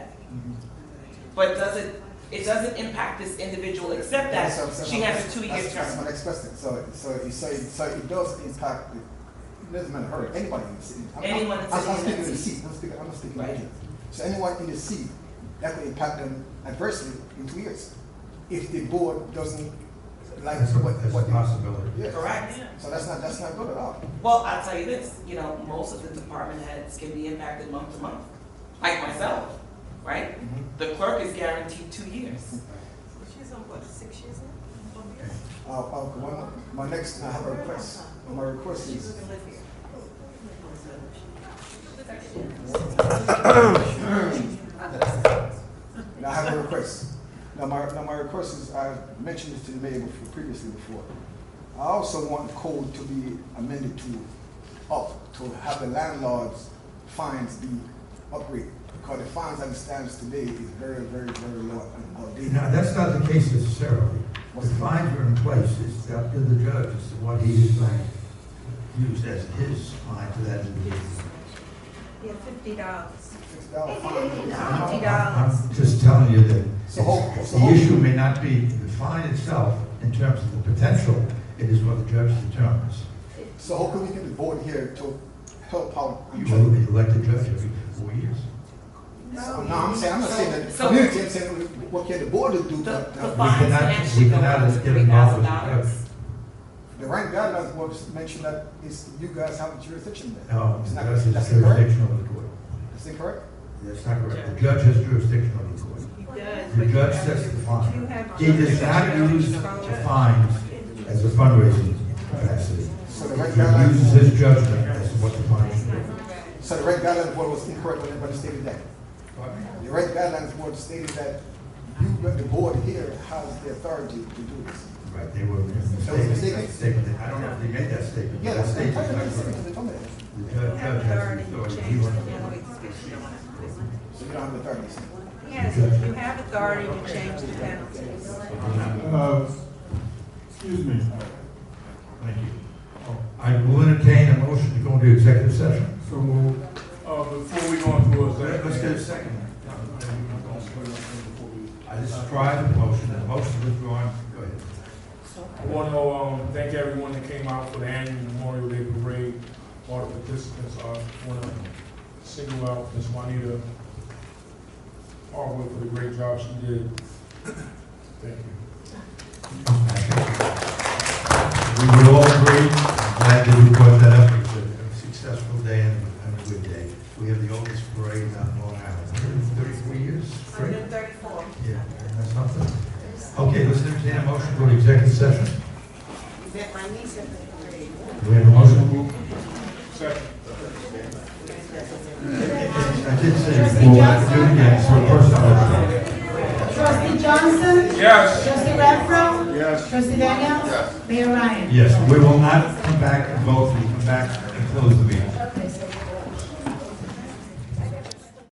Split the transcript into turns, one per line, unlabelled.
But does it, it doesn't impact this individual except that
So- so
she
my-
has a two-year
that's- That's my
term.
next question. So, so you say, so it does impact, the- it doesn't matter her, anybody in the city. I'm- I'm-
Anyone in the
I'm- I'm
city.
speaking in the seat, I'm speaking, I'm not speaking in the
Right.
city. So anyone in the seat, that could impact them adversely in two years. If the board doesn't like
That's
what,
that's
what
a
they.
possibility.
Yes.
Correct?
So that's not, that's not good at all.
Well, I'll tell you this, you know, most of the department heads can be impacted month to month, like myself, right? The clerk is guaranteed two years.
She's on what, six years now?
Uh, uh, one, my next, I have a request. Uh, My request
She's
is,
gonna live here.
now I have a request. Now my, now my request is, I mentioned this to the mayor before, previously before. I also want the code to be amended to up, to have the landlord's fines be upgraded. Because the fines as it stands today is very, very, very low and outdated.
Now, that's not the case necessarily. The fines are in place, it's up to the judge, as to what he is going to use as his fine to that individual.
Yeah, fifty dollars.
Six dollar fine.
Fifty
I'm
dollars.
just telling you that it's-
So hold- so
the
hold-
issue may not be the fine itself in terms of the potential, it is what the judge determines.
So how can we get the board here to help out? and
You
try-
will elect a judge every four years.
Oh, No, I'm saying, I'm not saying that the
So-
community, I'm saying what can the board do?
The,
but,
the
uh,
fines can
cannot-
actually
we
go
cannot
up to
get
three
involved
thousand
with the
dollars.
The right guidelines was mentioned that is you guys have jurisdiction there.
No,
Oh, It's
the
not-
judge has
That's incorrect.
jurisdiction over the court.
That's incorrect.
That's not correct. The judge has jurisdiction over the court.
He does.
The judge sets the fine. He does not use the fines as a fundraising capacity.
So the right
He uses
guidelines,
his judgment as to what the fine should be.
so the right guidelines board was incorrect when everybody stated that. The right guidelines board stated that you, but the board here has the authority to do this.
Right, they were
was a mistake.
mistaken, statement. I don't know if they made that statement.
Yeah,
but
that's,
That
that's,
statement is
that's, that's,
not correct.
they told me that.
The judge judge has the authority. He wants to-
So you don't have the authority.
Yes, you have authority to change the penalties.
Uh, Excuse me.
Thank you. I will entertain a motion to go into executive session.
So, uh, before we go into a
Let-
second.
Let's get a second.
I
I just tried the motion, the motion withdrawn. Go ahead.
want to, um, thank everyone that came out for the annual Memorial Day Parade, all the participants, I want to single out Ms. Juanita Harwood for the great job she did. Thank you.
We would all agree, I'm glad that you brought that up, it was a- a successful day and and a good day. We have the oldest parade on Long Island, thirty-three years, right?
Hundred thirty-four.
Yeah, that's something. Okay, let's entertain a motion to go to executive session. We have a motion.
Second.
I did say before, I do it again, so first I'll...
Trustee Johnson?
Yes.
Trustee Renfro?
Yes.
Trustee Daniels? Mayor Ryan?
Yes, we will not come back and vote, we come back and close the meeting.
Okay, so